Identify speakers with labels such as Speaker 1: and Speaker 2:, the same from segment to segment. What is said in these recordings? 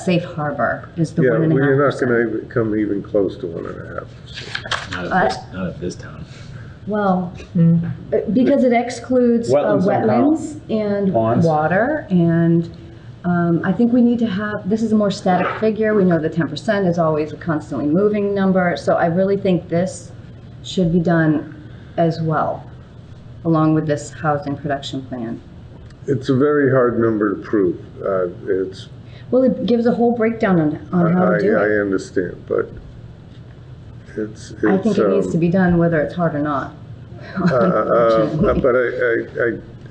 Speaker 1: safe harbor is the
Speaker 2: Yeah,
Speaker 1: one and a half
Speaker 2: we're not
Speaker 1: percent.
Speaker 2: gonna even come even close to one and a half.
Speaker 3: Not
Speaker 1: Uh,
Speaker 3: at this, not at this time.
Speaker 1: Well, uh, because it excludes uh,
Speaker 4: Mm. Wetlands and
Speaker 1: wetlands and
Speaker 4: Ponds.
Speaker 1: water, and um, I think we need to have, this is a more static figure, we know the ten percent is always a constantly moving number, so I really think this should be done as well, along with this housing production plan.
Speaker 2: It's a very hard number to prove. Uh, It's,
Speaker 1: Well, it gives a whole breakdown on,
Speaker 2: I,
Speaker 1: on how to do
Speaker 2: I
Speaker 1: it.
Speaker 2: understand, but it's, it's.
Speaker 1: I think it needs
Speaker 2: um,
Speaker 1: to be done whether it's hard or not.
Speaker 2: Uh, uh, But I, I, I,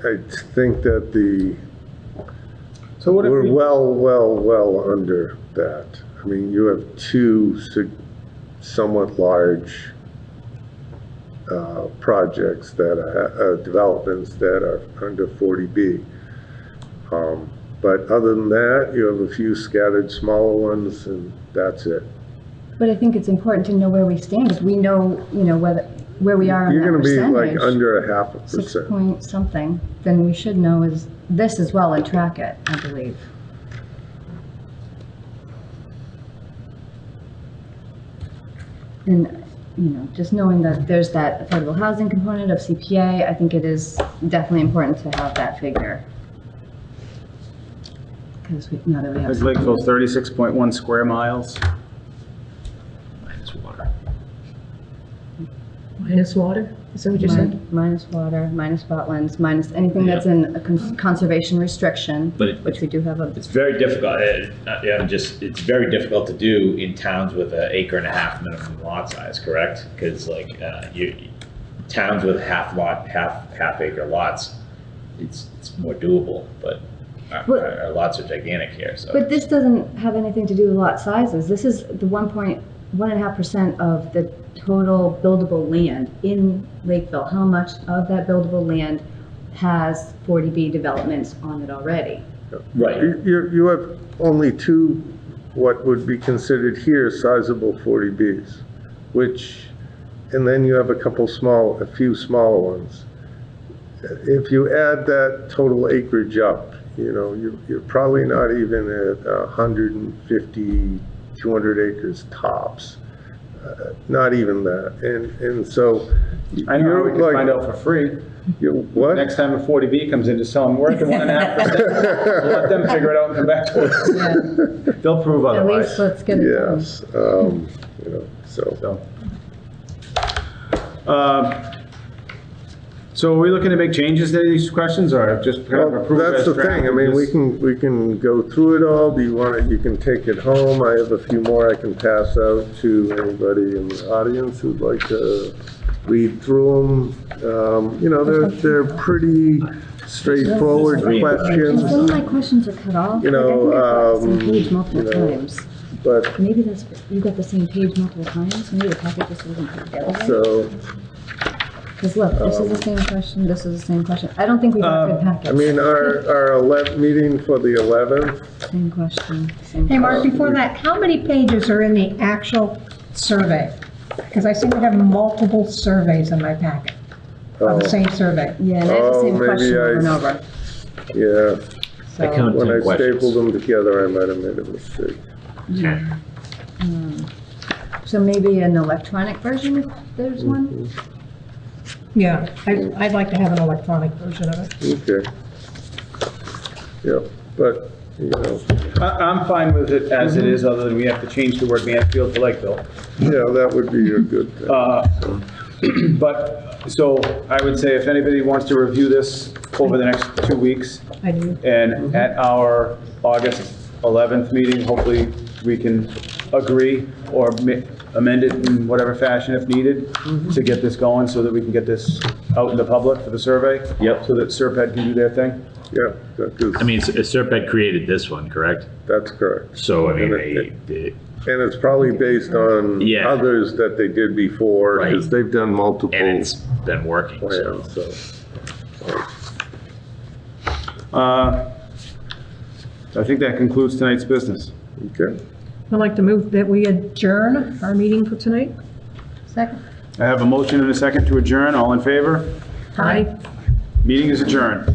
Speaker 2: I think that the,
Speaker 4: So what if
Speaker 2: we're
Speaker 4: we,
Speaker 2: well, well, well under that. I mean, you have two sig- somewhat large uh, projects that, are- uh, developments that are under 40B. Um, But other than that, you have a few scattered smaller ones and that's it.
Speaker 1: But I think it's important to know where we stand, because we know, you know, whether, where we are on
Speaker 2: You're
Speaker 1: that
Speaker 2: gonna be like
Speaker 1: percentage.
Speaker 2: under a half a
Speaker 1: Six
Speaker 2: percent.
Speaker 1: point something, then we should know is, this as well and track it, I believe. And, you know, just knowing that there's that affordable housing component of CPA, I think it is definitely important to have that figure. Because we, now that we have.
Speaker 4: is Lakeville thirty-six point one square miles?
Speaker 3: Minus water.
Speaker 5: Minus water, is that what you said?
Speaker 1: Min- Minus water, minus wetlands, minus anything that's in a con- conservation restriction,
Speaker 3: But it-
Speaker 1: which we do have a,
Speaker 6: It's very difficult, uh, uh, yeah, I'm just, it's very difficult to do in towns with an acre and a half minimum lot size, correct? Because like, uh, you, towns with half lot, half, half acre lots, it's, it's more doable, but our-
Speaker 1: Well-
Speaker 6: our our lots are gigantic here, so.
Speaker 1: but this doesn't have anything to do with lot sizes. This is the one point, one and a half percent of the total buildable land in Lakeville. How much of that buildable land has 40B developments on it already?
Speaker 6: Right,
Speaker 2: You, you- you have only two, what would be considered here sizable 40Bs, which, and then you have a couple small, a few smaller ones. If you add that total acreage up, you know, you're, you're probably not even at 150, 200 acres tops. Uh, Not even that. And, and so.
Speaker 4: I know,
Speaker 2: you're
Speaker 4: we can
Speaker 2: like-
Speaker 4: find out for free.
Speaker 2: You're what?
Speaker 4: Next time a forty B comes in to sell them, we're at the one and a half percent. Let them figure it out and come back to us. They'll prove
Speaker 1: At least
Speaker 4: otherwise,
Speaker 1: let's get it done.
Speaker 2: Yes, um, you know, so.
Speaker 4: so. Um, So are we looking to make changes to these questions or just kind of
Speaker 2: Well,
Speaker 4: approve
Speaker 2: that's
Speaker 4: as
Speaker 2: the thing, I
Speaker 4: drafted?
Speaker 2: mean, we
Speaker 4: Just-
Speaker 2: can, we can go through it all, do you want it, you can take it home, I have a few more I can pass out to anybody in the audience who'd like to read through them. Um, you know, they're, they're pretty straightforward
Speaker 6: Just read.
Speaker 1: And some
Speaker 2: questions,
Speaker 1: of my questions are cut off.
Speaker 2: You
Speaker 1: Like, I think
Speaker 2: know,
Speaker 1: I've got the same
Speaker 2: um,
Speaker 1: page multiple
Speaker 2: you know,
Speaker 1: times.
Speaker 2: but,
Speaker 1: Maybe that's, you got the same page multiple times, maybe the packet just wasn't put together. right.
Speaker 2: so,
Speaker 1: Because look, this is the same question, this is the same question. I don't think we got good
Speaker 2: Um, I
Speaker 1: packets.
Speaker 2: mean, our, our eleventh, meeting for the eleventh,
Speaker 1: Same question, same.
Speaker 5: Hey, Mark,
Speaker 1: question.
Speaker 5: before that, how many pages are in the actual survey? Because I seem to have multiple surveys in my packet, on
Speaker 3: Oh.
Speaker 5: the same survey.
Speaker 1: Yeah, and it's the
Speaker 2: Oh,
Speaker 1: same
Speaker 2: maybe
Speaker 1: question over and
Speaker 2: I-
Speaker 1: over,
Speaker 2: yeah,
Speaker 3: I
Speaker 1: so.
Speaker 3: count
Speaker 2: when
Speaker 3: ten
Speaker 2: I stapled
Speaker 3: questions.
Speaker 2: them together, I might have made a mistake.
Speaker 1: So maybe an electronic version if there's one?
Speaker 5: Yeah, I'd, I'd like to have an electronic version of it.
Speaker 2: Okay. Yeah, but, you know,
Speaker 4: I, I'm fine with it as
Speaker 2: Mm-hmm.
Speaker 4: it is, other than we have to change the word Mansfield to Lakeville.
Speaker 2: yeah, that would be a good thing.
Speaker 4: Uh, But, so I would say if anybody wants to review this over the next two weeks
Speaker 5: I do.
Speaker 4: and at our August 11th meeting, hopefully we can agree or ma- amend it in whatever fashion if needed to get this going so that we can get this out in the public for the survey.
Speaker 3: Yep.
Speaker 4: So that Serped can do their thing.
Speaker 2: Yeah, that
Speaker 3: I
Speaker 2: is,
Speaker 3: mean, Serp had E created this one, correct?
Speaker 2: that's correct.
Speaker 3: So, I mean, they, they-
Speaker 2: And it's probably based on
Speaker 3: Yeah.
Speaker 2: others that they did before, because
Speaker 3: Right.
Speaker 2: they've done multiple
Speaker 3: and it's
Speaker 2: plans,
Speaker 3: been working,
Speaker 2: Oh,
Speaker 3: so.
Speaker 2: so.
Speaker 4: Uh, I think that concludes tonight's business.
Speaker 2: Okay,
Speaker 5: I'd like to move that we adjourn our meeting for tonight.
Speaker 1: Second?
Speaker 4: I have a motion and a second to adjourn. All in favor?
Speaker 5: Aye.
Speaker 4: Meeting is adjourned.